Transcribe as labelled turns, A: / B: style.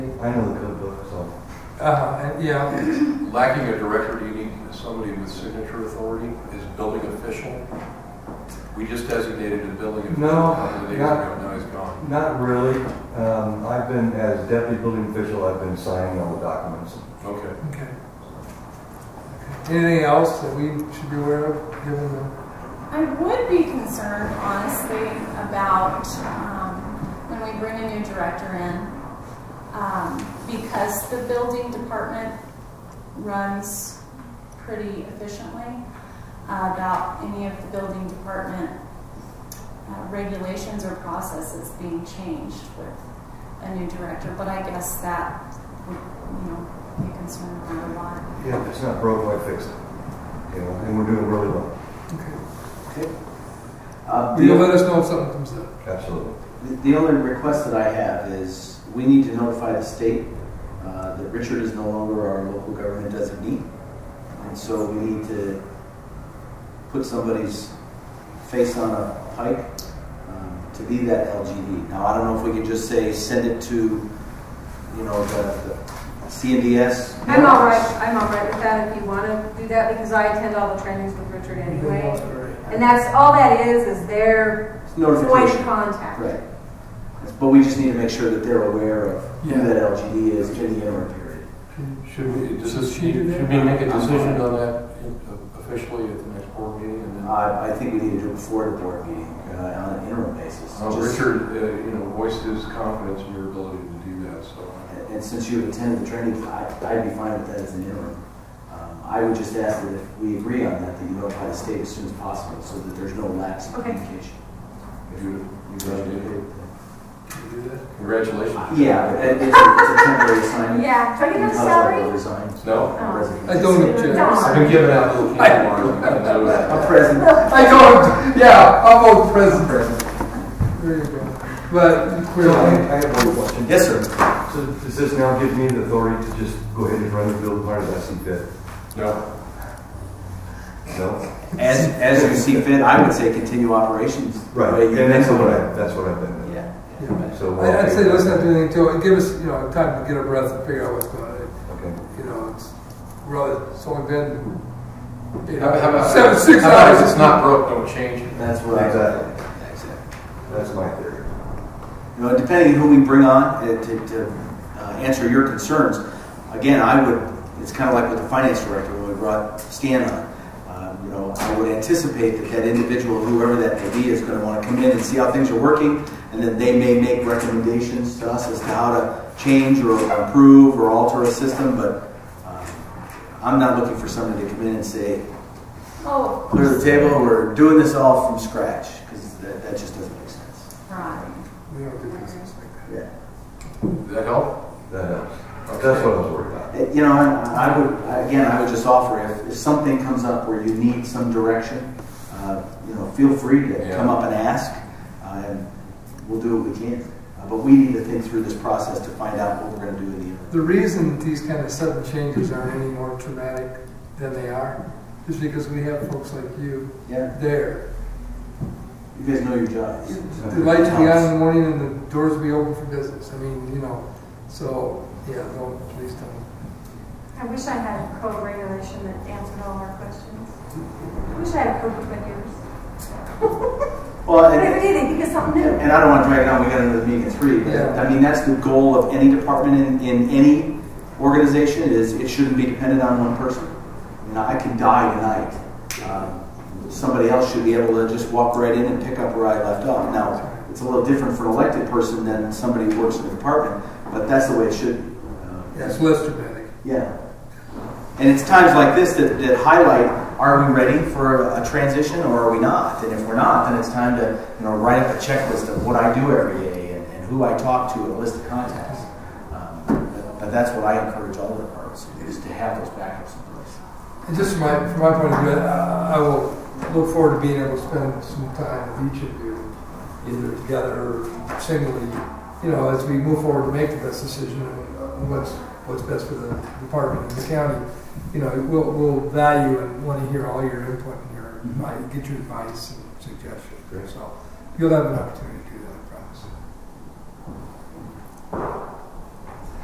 A: I know the code book, so.
B: Uh, and yeah,
C: Lacking a director, you need somebody with signature authority as building official. We just designated a building official
A: No,
C: a couple of days
A: not-
C: ago, now he's gone.
A: Not really. Um, I've been, as deputy building official, I've been signing all the documents.
C: Okay.
B: okay. Anything else that we should be aware of, given the,
D: I would be concerned, honestly, about um, when we bring a new director in, um, because the building department runs pretty efficiently, uh, about any of the building department uh, regulations or processes being changed with a new director. But I guess that would, you know, be a concern for a lot.
A: Yeah, if it's not broke, why fix it? You know, and we're doing really well.
B: okay.
E: Uh,
B: You'll
E: The
B: let us know if something comes up.
A: Absolutely.
E: the only request that I have is, we need to notify the state uh, that Richard is no longer our local government designee, and so we need to put somebody's face on a pike um, to be that LGD. Now, I don't know if we can just say, send it to, you know, the the CNDS.
F: I'm all right, I'm all right with that if you want to do that, because I attend all the trainings with Richard anyway. And that's, all that is, is their point of
E: Notification.
F: contact.
E: Right. But we just need to make sure that they're aware of who
B: Yeah.
E: that LGD is in the interim period.
C: Should we, does this,
B: Should we do that?
C: should we make a decision on that officially at the next board meeting? and then- uh,
E: I, I think we need to do it before the board meeting, uh, on an interim basis.
C: Uh,
E: Just-
C: Richard, uh, you know, voiced his confidence in your ability to do that, so.
E: And and since you've attended the training, I, I'd be fine with that as an interim. Um, I would just ask that if we agree on that, that you notify the state as soon as possible, so that there's no lapse in
F: Okay.
E: communication.
C: you-
E: You
C: you
E: guys
C: did
E: agree
C: it.
E: with that?
B: Can we do that?
C: Congratulations.
E: Yeah, it- it's a, it's a temporary assignment.
F: Yeah, do you have a salary? Oh.
C: No,
B: I don't object.
C: I've been giving out little candy bars. I know that.
E: A present.
B: I don't, yeah, I'll vote present. There you go. But
A: So I
B: clearly,
A: I have one question.
E: Yes, sir.
A: So does this now give me the authority to just go ahead and run the building part as I see fit?
C: No,
A: No?
E: As, as you see fit, I would say continue operations. the way
A: Right,
E: you've
A: and that's
E: been
A: what
E: doing it.
A: I, that's what I've been.
E: Yeah.
B: Yeah.
A: So. we'll-
B: I- I'd say let's not do anything till, give us, you know, time to get a breath and figure out what's going on.
A: Okay.
B: You know, it's, really, it's only been, you
C: How about- how
B: know,
C: about-
B: seven, six
C: how about if
B: hours.
C: It's not broke, don't change it.
E: That's what I.
A: Exactly.
E: Exactly.
A: That's my theory.
E: You know, depending on who we bring on uh, to, to uh, answer your concerns, again, I would, it's kind of like with the finance director when we brought Stan on. Um, You know, I would anticipate that that individual, whoever that may be, is going to want to come in and see how things are working, and then they may make recommendations to us as to how to change or improve or alter a system, but um, I'm not looking for somebody to come in and say,
D: Oh, of
E: clear
D: course.
E: the table, we're doing this all from scratch, because that, that just doesn't make sense.
D: Right.
B: We don't do business like that.
E: Yeah.
C: Does that help?
A: That helps. That's what I was worried about.
E: You know, I I would, again, I would just offer, if, if something comes up where you need some direction, uh, you know, feel free to
C: Yeah.
E: come up and ask, uh, and we'll do what we can. Uh, But we need to think through this process to find out what we're gonna do in the interim.
B: The reason that these kind of sudden changes aren't any more traumatic than they are is because we have folks like you
E: Yeah,
B: there.
E: you guys know your jobs.
B: The lights will be on in the morning and the doors will be open for business. I mean, you know, so, yeah, don't, please don't.
F: I wish I had a code regulation that answered all our questions. I wish I had a code book like yours.
E: Well,
F: But
E: and,
F: every day they think of something new.
E: and I don't wanna drag it on, we got another meeting at three, but,
B: Yeah.
E: I mean, that's the goal of any department in, in any organization, is it shouldn't be dependent on one person. You know, I can die tonight. Um, Somebody else should be able to just walk right in and pick up where I left off. Now, it's a little different for an elected person than somebody who works in the department, but that's the way it should. be. Uh,
B: Yeah, it's less dramatic.
E: Yeah. And it's times like this that, that highlight, are we ready for a transition or are we not? And if we're not, then it's time to, you know, write up a checklist of what I do every day and, and who I talk to and a list of contacts. Um, But but that's what I encourage all the departments, to do, is to have those backups in place.
B: And just from my, from my point of view, I, I will look forward to being able to spend some time with each of you, either together or singly, you know, as we move forward to make the best decision on what's, what's best for the department and the county. You know, we'll, we'll value and want to hear all your input and your, advi- get your advice and suggestions. So you'll have an opportunity to do that, I promise.